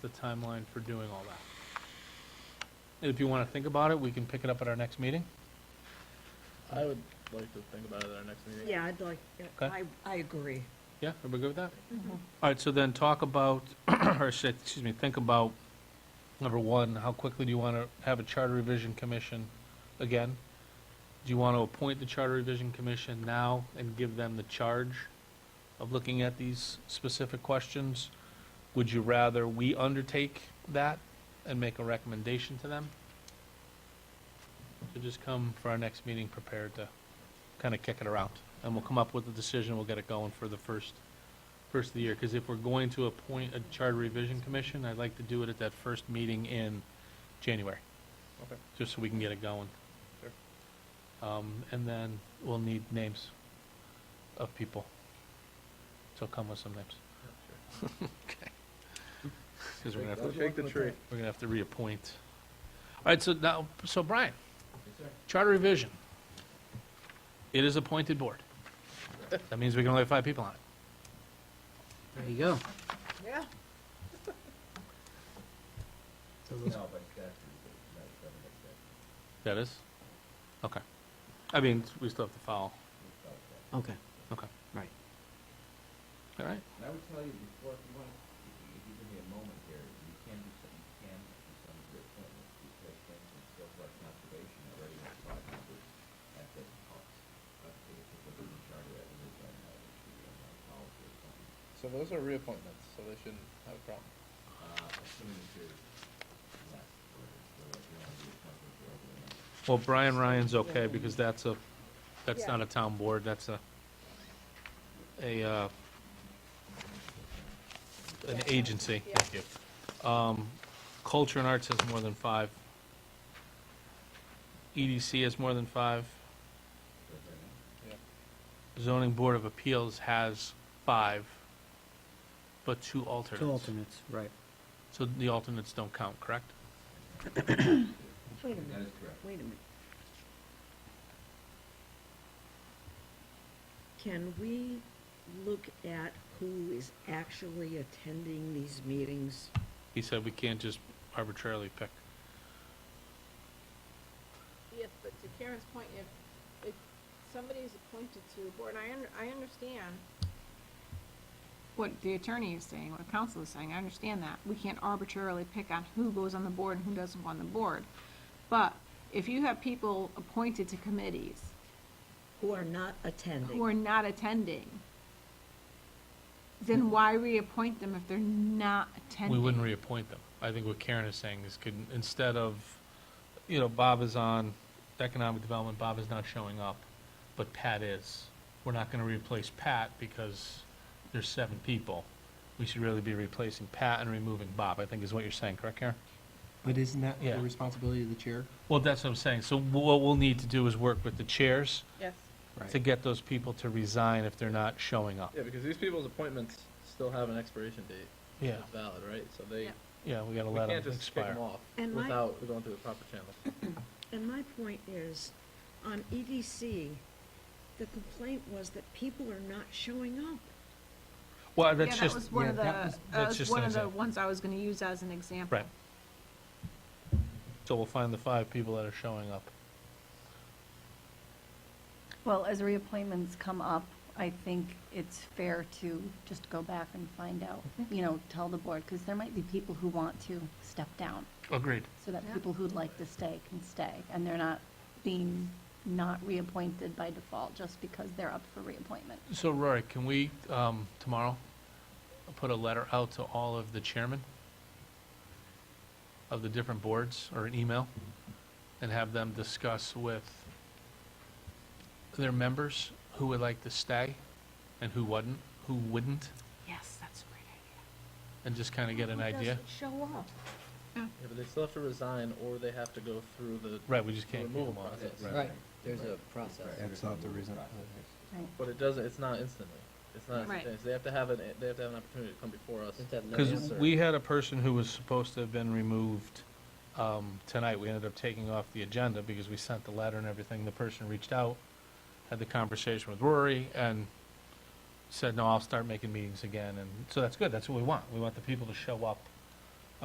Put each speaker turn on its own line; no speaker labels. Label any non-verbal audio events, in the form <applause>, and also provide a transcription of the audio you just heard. the timeline for doing all that. If you want to think about it, we can pick it up at our next meeting.
I would like to think about it at our next meeting.
Yeah, I'd like,
Okay.
I, I agree.
Yeah, everybody good with that? All right, so then talk about, <clears throat> or shit, excuse me, think about, number one, how quickly do you want to have a charter revision commission again? Do you want to appoint the charter revision commission now and give them the charge of looking at these specific questions? Would you rather we undertake that and make a recommendation to them? So just come for our next meeting prepared to kind of kick it around, and we'll come up with a decision, we'll get it going for the first first of the year, because if we're going to appoint a charter revision commission, I'd like to do it at that first meeting in January,
Okay.
just so we can get it going.
Sure.
Um, and then we'll need names of people. So come with some names, <laughs> because we're gonna have to,
Shake the tree.
we're gonna have to reappoint. All right, so now, so Brian, charter revision. It is appointed board. That means we can only have five people on it.
There you go.
Yeah.
So those-
That is? Okay. I mean, we still have to file.
Okay,
Okay.
right.
All right.
And I would tell you before, if you want, if you if you give me a moment here, you can do some, you can do some of your appointments, because for instance, Silver Conservation already has five members at this cost. But if you look at the charter, that is, I know, it should be on my policy or something,
So those are reappointments, so they shouldn't have a problem.
uh, assuming that you're less, or, or if you want to do appointments or over the next
Well, Brian Ryan's okay because that's a, that's
Yeah.
not a town board, that's a, a, uh, an agency, thank you. Um, Culture and Arts has more than five. EDC has more than five.
Yeah.
Zoning Board of Appeals has five, but two
Two
alternates.
alternates, right.
So the alternates don't count, correct?
Wait a minute,
That is correct.
wait a minute. Can we look at who is actually attending these meetings?
He said we can't just arbitrarily pick.
Yes, but to Karen's point, if, if somebody's appointed to a board, I under, I understand what the attorney is saying, what the counsel is saying, I understand that. We can't arbitrarily pick on who goes on the board and who doesn't go on the board. But if you have people appointed to committees
Who are not
who
attending?
are not attending, then why reappoint them if they're not
We
attending?
wouldn't reappoint them. I think what Karen is saying is could, instead of, you know, Bob is on economic development, Bob is not showing up, but Pat is. We're not gonna replace Pat because there's seven people. We should really be replacing Pat and removing Bob, I think is what you're saying, correct, Karen?
But isn't that
Yeah.
the responsibility of the chair?
Well, that's what I'm saying. So what we'll need to do is work with the chairs
Yes.
to get those people to resign if they're not showing up.
Yeah, because these people's appointments still have an expiration date.
Yeah,
that's Valid, right? So they,
Yeah.
yeah, we gotta
we
let them
can't just kick
expire.
them off
And my-
without going through the proper channels.
And my point is, on EDC, the complaint was that people are not showing up.
Well,
Yeah,
that's
that
just,
was one of the,
yeah,
that
that that's
was
just
one
an
of the
example.
ones I was gonna use as an example.
Right. So we'll find the five people that are showing up.
Well, as reappointments come up, I think it's fair to just go back and find out, you know, tell the board, because there might be people who want to step down,
Agreed.
so that
Yeah.
people who'd like to stay can stay, and they're not being not reappointed by default just because they're up for reappointment.
So Rory, can we, um, tomorrow, put a letter out to all of the chairmen of the different boards, or an email, and have them discuss with their members who would like to stay and who wouldn't, who wouldn't,
Yes, that's a great idea.
and just kind of get an
Who
idea?
doesn't show up?
Yeah, but they still have to resign or they have to go through the
Right, we just
the
can't keep
removal
them on.
process.
Right.
there's a process.
That's not the reason.
Right.
But it doesn't, it's not instantly. It's not
Right.
instantaneous. They have to have an, they have to have an opportunity to come before us.
Because we had a person who was supposed to have been removed um, tonight. We ended up taking off the agenda because we sent the letter and everything. The person reached out, had the conversation with Rory, and said, no, I'll start making meetings again. And so that's good. That's what we want. We want the people to show up